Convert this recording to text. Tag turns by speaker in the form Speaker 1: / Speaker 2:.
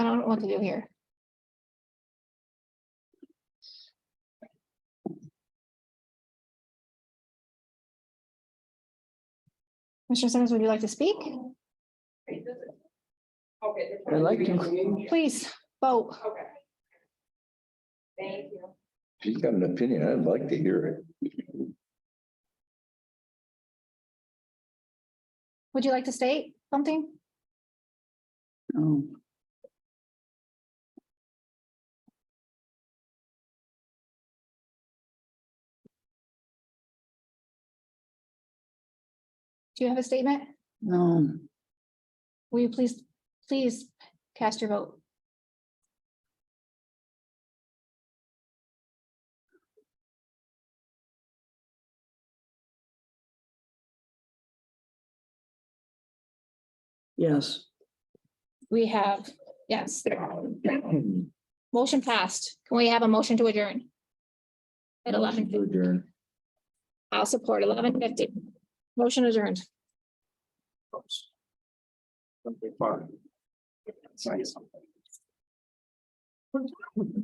Speaker 1: what to do here. Mr. Simmons, would you like to speak?
Speaker 2: I like to.
Speaker 1: Please vote.
Speaker 2: She's got an opinion. I'd like to hear it.
Speaker 1: Would you like to state something?
Speaker 3: Oh,
Speaker 1: Do you have a statement?
Speaker 3: no,
Speaker 1: Will you please, please cast your vote?
Speaker 3: yes,
Speaker 1: We have, yes. Motion passed. Can we have a motion to adjourn? At eleven,
Speaker 2: Adjourn.
Speaker 1: I'll support eleven fifty. Motion adjourned.
Speaker 2: Something fun. Say something.